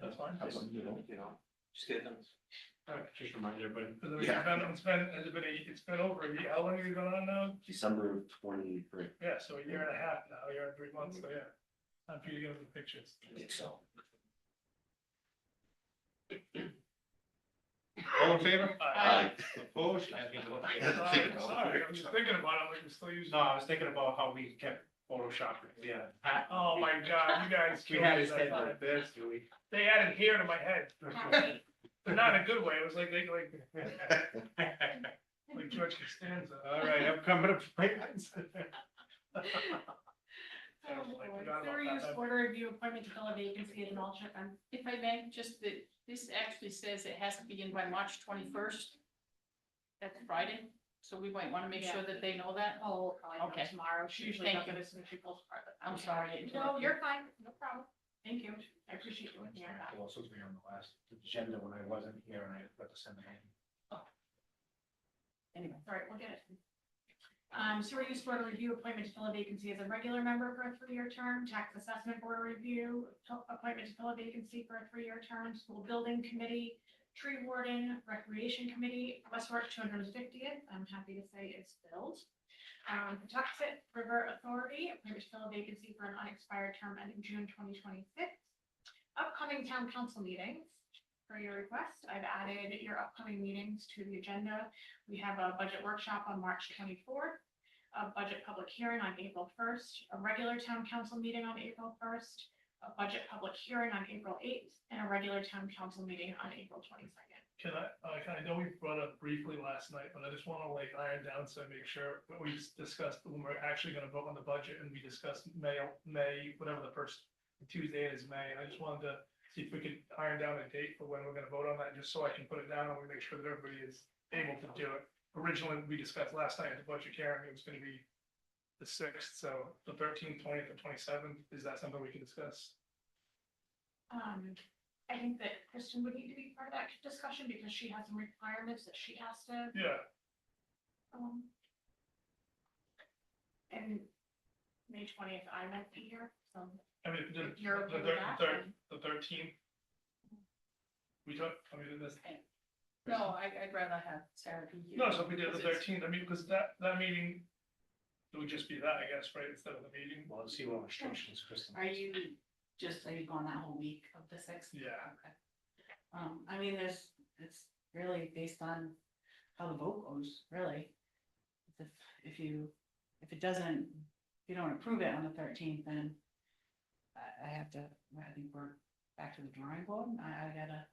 That's fine. That's what, you know, you know, just get them. All right. Just remind everybody, But then we Yeah. haven't- It's been, it's been, a- it's been over, a year. how long have you been on now? December of twenty-three, Yeah, so a year and a half now, a year and three months, so yeah. Time for you to get the pictures. I think so. All in favor? Aye. Opposed? Uh, I think about- Sorry, sorry, I'm just thinking about it, like we're still using. No, I was thinking about how we kept photoshopping, yeah. I- Oh my god, you guys We killed had me his that head time. like this, do we? They added hair to my head, but not in a good way, it was like, they like, like George Costanza. All right, upcoming appointments. I was like, Oh, boy. forgot about Fair use that. order review appointment to fill a vacancy at an alternate, um, if I may, just that, this actually says it has to be in by March twenty-first. That's Friday, so we might wanna make sure that they know that. Oh, probably Okay. come tomorrow. She usually Thank does you. it as soon as she pulls apart. I'm sorry. I No, interrupted. you're fine. No problem. Thank you, I appreciate you. looking at that. Well, supposed to be on the last agenda when I wasn't here and I forgot to send it in. Anyway, All right, we'll get it. Um, sewer use board review appointment to fill a vacancy as a regular member for a three-year term, tax assessment board review, to- appointment to fill a vacancy for a three-year term, school building committee, tree warden, recreation committee, West Warwick two hundred and fiftieth, I'm happy to say is filled. Um, Patuxent River Authority, appointment to fill a vacancy for an unexpired term ending June twenty twenty-six. Upcoming town council meetings, for your request, I've added your upcoming meetings to the agenda. We have a budget workshop on March twenty-fourth, a budget public hearing on April first, a regular town council meeting on April first, a budget public hearing on April eighth, and a regular town council meeting on April twenty-second. Can I, uh, can- I know we brought up briefly last night, but I just wanna like iron down so I make sure what we discussed when we're actually gonna vote on the budget and we discussed May, May, whatever the first Tuesday is May, I just wanted to see if we could iron down a date for when we're gonna vote on that, just so I can put it down and we make sure that everybody is able to do it. Originally, we discussed last night at the budget hearing, it was gonna be the sixth, so the thirteenth, twentieth, and twenty-seventh, is that something we can discuss? Um, I think that Kristen would need to be part of that discussion because she has some requirements that she has to, Yeah, um, and May twentieth, I might be here, so I mean, the, if you're the okay with thir- that, thir- then- the thirteenth. We don't, I mean, this, no, I, I'd rather have Sarah be here. no, so if we did the because it's- thirteenth, I mean, because that, that meeting, it would just be that, I guess, right, instead of the meeting, Well, let's see what restrictions Kristen. Are you, just, are you gone that whole week of the sixth? yeah. Okay. Um, I mean, there's, it's really based on how the vote goes, really. If, if you, if it doesn't, if you don't approve it on the thirteenth, then I, I have to, I think we're back to the drawing board, and I, I gotta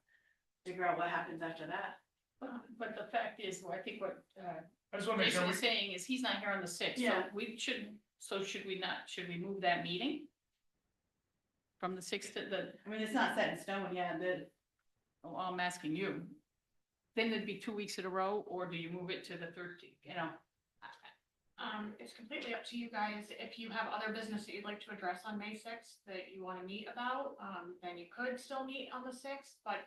figure out what happens after that. But- the fact is, I think what, uh, I just want to make sure, we- saying is he's not here on the sixth, so we shouldn't, so should we not, should we move that meeting? From the sixth to the. I mean, it's not set in stone yet, the. Oh, I'm asking you. Then it'd be two weeks in a row, or do you move it to the thirteenth, you know? Um, it's completely up to you guys. If you have other business that you'd like to address on May sixth that you wanna meet about, um, then you could still meet on the sixth, but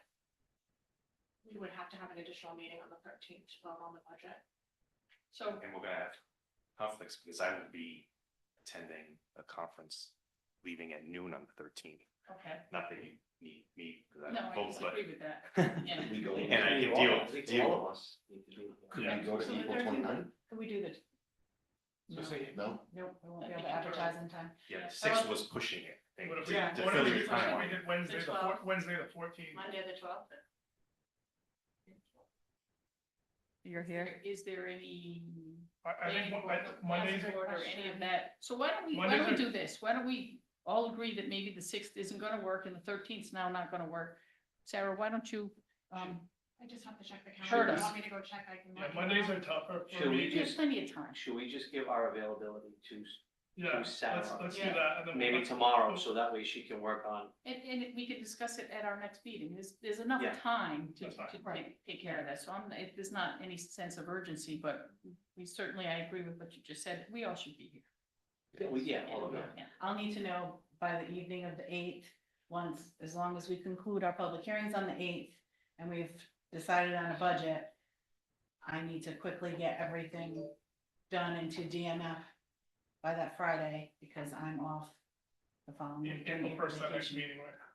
we would have to have an additional meeting on the thirteenth to vote on the budget. So, And we're gonna have conflicts because I will be attending a conference, leaving at noon on the thirteenth. okay, Not that you need me, because I no, I don't vote, but disagree with that, yeah. We go- And I can deal- I think deal- All of us need to do. Could Yeah. we go So to the April 13th? twenty-nine? Can we do the? So No, say, No? nope, we won't be I think able to you're advertise in time. yeah, Yeah. the sixth was pushing it. I think, what if to- we, Yeah. to what if fill we, what your if we timeline. did Wednesday, the four, Twelve. Wednesday the fourteenth? Monday, the twelfth. You're here? Is there any I, I think, what- I think Mondays, Passport Or any of question. that, so why don't we, why Mondays don't we are- do this, why don't we all agree that maybe the sixth isn't gonna work and the thirteenth's now not gonna work? Sarah, why don't you, um, I just have to check the Sure. calendar. If you want me to go check, I can. yeah, let you Mondays know. are tougher for Should we me, do- there's Just- plenty of time. Should we just give our availability to yeah, do let's, Saturday. let's do Yeah. that, and then. maybe tomorrow, so that way she can work on And, and we can discuss it at our next meeting, there's, there's enough Yeah. time to, That's fine. to take, take care of that, so I'm, it, there's not any sense of urgency, but we certainly, I agree with what you just said, we all should be here. Yeah, we- yeah, all of that. Yeah. I'll need to know by the evening of the eighth, once, as long as we conclude our public hearings on the eighth, and we've decided on a budget, I need to quickly get everything done into DMF by that Friday, because I'm off the following. In, week. in the first, that next Vacation. meeting, right?